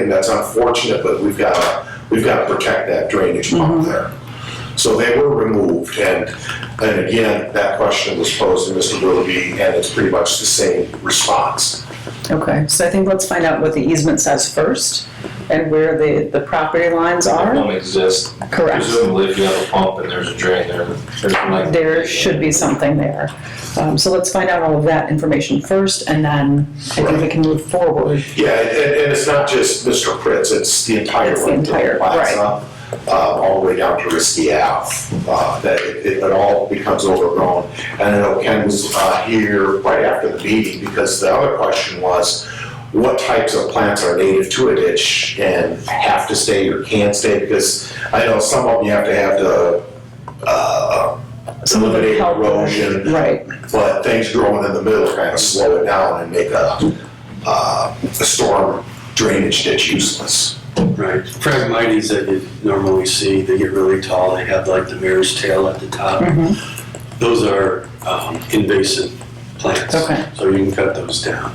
And that's unfortunate, but we've got to, we've got to protect that drainage pump there. So they were removed, and, and again, that question was posed to Mr. Willoughby, and it's pretty much the same response. Okay, so I think let's find out what the easement says first and where the, the property lines are. don't exist. Correct. Presumably, if you have a pump and there's a drain there, there's like. There should be something there. Um, so let's find out all of that information first and then I think we can move forward. Yeah, and, and it's not just Mr. Pritz, it's the entire It's the length of entire- the plaza, uh, all the way down to Risky Ave, uh, that it, it it all becomes overgrown. And I know Ken was, uh, here right after the meeting, because the other question was, what types of plants are native to a ditch and have to stay or can stay? Because I know some of them you have to have to, uh, Some of eliminate it help- erosion, Right, but things growing in the middle kind of slow it down and make a, uh, a storm drainage ditch useless. Right, phragmites that you normally see, they get really tall, they have like the mare's tail at the top. Hmm. Mm-hmm. Those are um, invasive plants. Okay. So you can cut those down.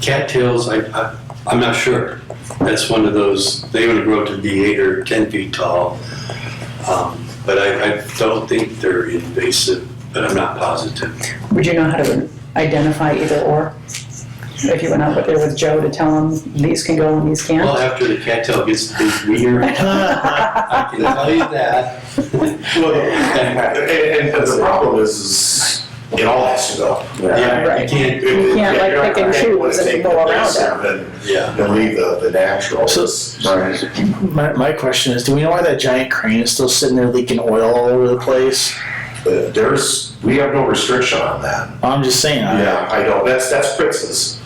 Cattails, I, I, I'm not sure. That's one of those, they would grow to be eight or 10 feet tall. Um, But I, I don't think they're invasive, but I'm not positive. would you know how to identify either or? If you went out with- there with Joe to tell him these can go and these Well, can't? after the cattail gets to be weird, I can tell you that. And, and the problem is, is it all has to go. Yeah, you Right. If- can't if can't, like, you're not pick and gonna choose and take go the around best it. of it, Yeah. Then leave the, the natural. Right. My, my question is, do we know why that giant crane is still sitting there leaking oil all over the place? But There's, we have no restriction on that. I'm just saying. Yeah, I know, that's, that's Pritz's,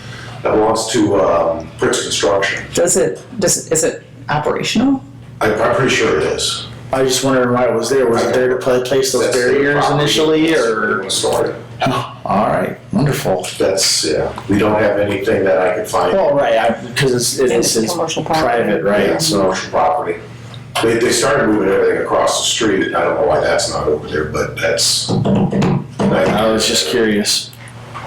that belongs to, um, Pritz Construction. Does it, does, is it operational? I'm, I'm pretty sure it is. I, I just wondered why it was there. Was it there to pla- place those That's their barriers property. initially, That's where or? it was started. Oh, all right, wonderful. That's, yeah, we don't have anything that I can find. Well, right, because it's, it's, It's it's commercial property. private, right? Yeah, So, commercial property. They, they started moving everything across the street, I don't know why that's not over there, but that's. I was just curious.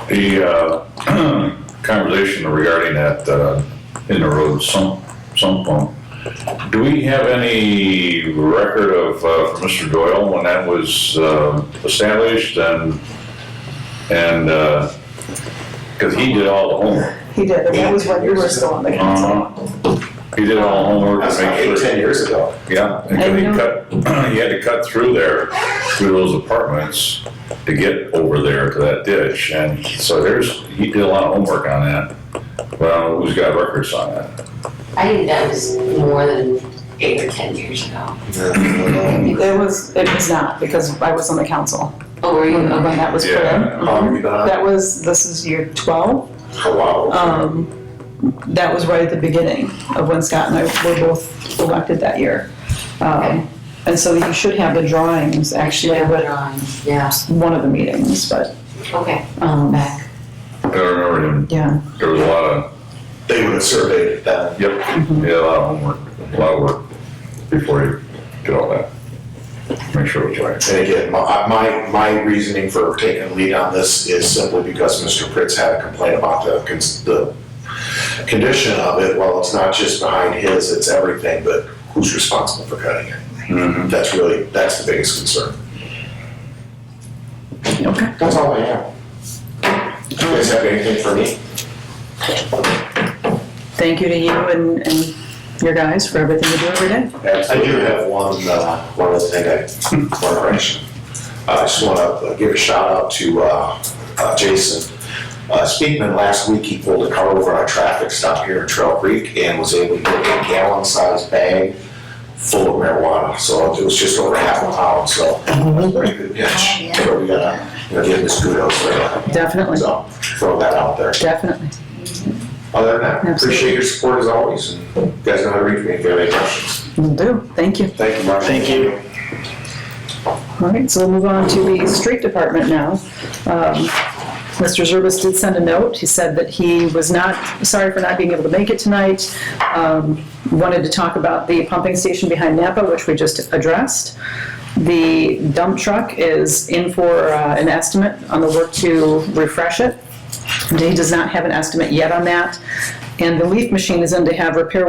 The uh, conversation regarding that uh, in the road sump, sump pump, do we have any record of, uh, from Mr. Doyle when that was uh, established and, and, because he did all the homework. He did, and that was when you were still on the council. Uh-huh. He did all the homework That's to like make eight, ten sure, years ago. yeah, because he cut, he had to cut through there, through those apartments to get over there to that ditch. And so there's, he did a lot of homework on that. Well, who's got records on that? I think that was more than eight or ten years ago. It was, it was not, because I was on the council Oh, were you? when when Okay. that was put in. Yeah. Um, you know, That was, this is year 12. a while. Um, That was right at the beginning of when Scott and I were both elected that year. Um, And so you should have the drawings actually Yeah, at drawing. Yeah, one of the meetings, but, okay, um, back. I don't remember him. yeah. There was a lot of, They would have surveyed it then. yep, he had a lot of homework, a lot of work before he did all that. Make sure it was right. And again, my, my, my reasoning for taking lead on this is simply because Mr. Pritz had a complaint about the, cons- the condition of it. Well, it's not just behind his, it's everything, but who's responsible for cutting it? That's really, that's the biggest concern. Okay. That's all I have. Do you guys have anything for me? Thank you to you and, and your guys for everything you do every day. I do have one, uh, one other thing, I, one correction. I just want to give a shout out to uh, uh, Jason. Uh, Speakman, last week, he pulled a car over on a traffic stop here in Trail Creek and was able to get a gallon-sized bag full of marijuana. So it was just over half a pound, so pretty good catch. So we gotta, you know, give him his kudos for that. Definitely, So throw that out there. definitely. Other than that, Absolutely. appreciate your support as always. and You guys know how to reach me if you have any questions. Will do. Thank you. Thank you, Mark. Thank you. All right, so we'll move on to the street department now. Um, Mr. Zerbis did send a note. He said that he was not, sorry for not being able to make it tonight. Um, Wanted to talk about the pumping station behind Napa, which we just addressed. The dump truck is in for uh, an estimate on the work to refresh it. He does not have an estimate yet on that. And the leaf machine is in to have repair